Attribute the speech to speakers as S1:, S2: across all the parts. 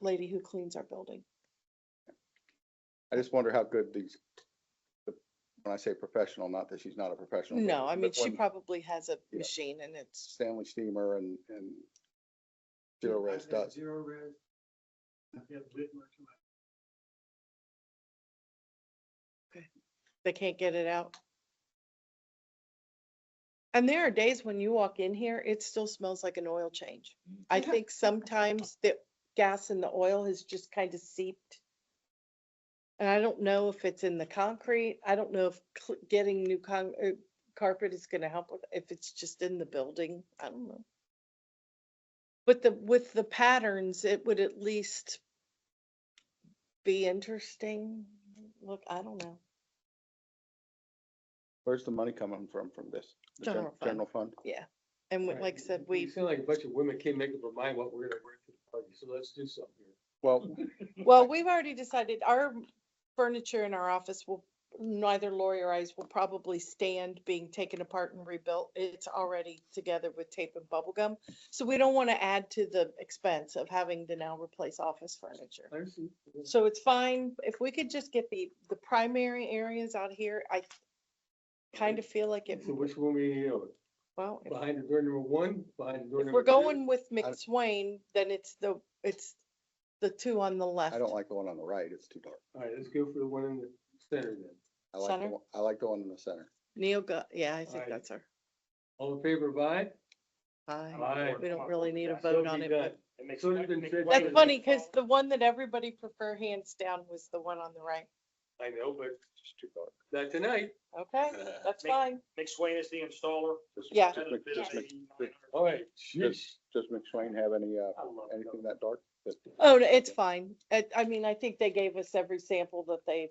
S1: lady who cleans our building.
S2: I just wonder how good these, the- when I say professional, not that she's not a professional.
S1: No, I
S2: but
S1: mean, she
S2: when
S1: probably has a
S2: Yeah.
S1: machine and it's,
S2: Stanley Steamer and, and Zero Res
S3: I've had
S2: does.
S3: Zero res. I've had Whitmer come out.
S1: they can't get it out. And there are days when you walk in here, it still smells like an oil change. I think sometimes the gas and the oil has just kind of seeped. And I don't know if it's in the concrete. I don't know if cl- getting new con, uh, carpet is gonna help with, if it's just in the building, I don't know. But the, with the patterns, it would at least be interesting. Look, I don't know.
S2: Where's the money coming from, from this? The gen-
S1: General fund.
S2: General fund?
S1: And we-
S3: Right.
S1: like I said,
S3: You- You
S1: we,
S3: sound like a bunch of women can't make up their mind what we're gonna wear to the party, so let's do something here.
S2: Well,
S1: well, we've already decided our furniture in our office will, neither Lori or I's will probably stand being taken apart and rebuilt. It's already together with tape and bubble gum. So we don't want to add to the expense of having to now replace office furniture.
S3: I see.
S1: So it's fine, if we could just get the, the primary areas out here, I kind of feel like it,
S3: So which one we, you know,
S1: well, if-
S3: behind the door number one, behind the door
S1: if
S3: number.
S1: we're
S3: two?
S1: going with McSwain, then it's the, it's the two on the left.
S2: I don't like the one on the right. It's too dark.
S3: All right, let's go for the one in the center then.
S2: I like, the
S1: Center?
S2: one- I like the one in the center.
S1: Neil, Gu- yeah, I think
S3: Alright.
S1: that's her.
S3: All in favor of aye?
S1: Aye.
S3: Aye.
S1: We don't really need a
S3: So
S1: vote on
S3: be
S1: it.
S3: done.
S1: but-
S3: So it's been said-
S1: That's funny, because the one that everybody prefer hands down was the one on the right.
S3: I know, but not tonight.
S1: Okay, that's fine.
S4: McSwain is the installer.
S2: Does-
S1: Yeah.
S2: does
S4: Had a
S2: Mc-
S4: bid of
S2: does Mc-
S4: 89.
S3: All right.
S2: Does does McSwain have any, uh,
S4: I love
S2: anything that dark? That-
S1: Oh, no, it's fine. I, I mean, I think they gave us every sample that they've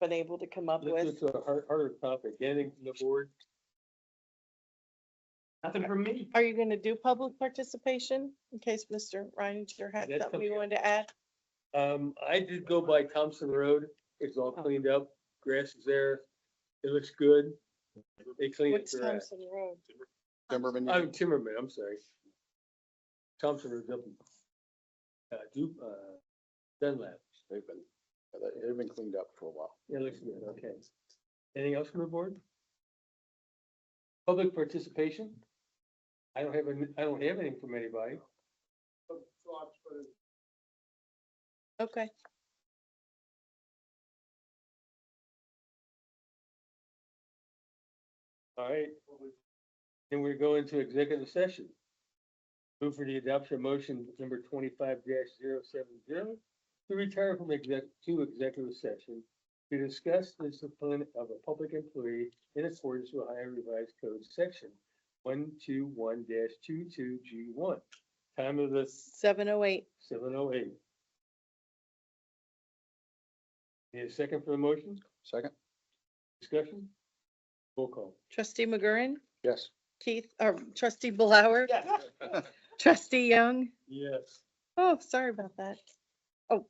S1: been able to come up
S3: This
S1: with.
S3: is a hard- harder topic, anything from the board?
S4: Nothing from me.
S1: Are you gonna do public participation in case Mr. Reininger had
S3: That's
S1: something you
S3: okay.
S1: wanted to add?
S3: Um, I did go by Thompson Road. It's all
S1: Oh.
S3: cleaned up. Grass is there. It looks good. They cleaned up
S1: What's
S3: the grass.
S1: Thompson Road?
S2: Timberman, you-
S3: I'm Timmerman, I'm sorry. Thompson Road's up. in, Uh, Du, uh, Dunlap.
S2: they've been, they've been cleaned up for a while.
S3: It looks good, okay. Anything else from the board? Public participation? I don't have, an- I don't have anything from anybody.
S1: Okay,
S3: All right. Then we go into executive session. Move for the adoption of motion number twenty-five 70 to retire from exec, to executive session to discuss the discipline of a public employee in accordance with Ohio Revised Code Section one two one 22 G one. Time of the
S1: seven oh eight.
S3: seven oh eight. Need a second for the motion?
S2: Second?
S3: Discussion? Roll call.
S1: Trustee McGurran,
S2: Yes.
S1: Keith, or trustee Blower,
S4: Yes.
S1: trustee Young.
S3: Yes.
S1: Oh, sorry about that.
S3: All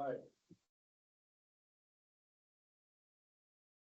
S3: right.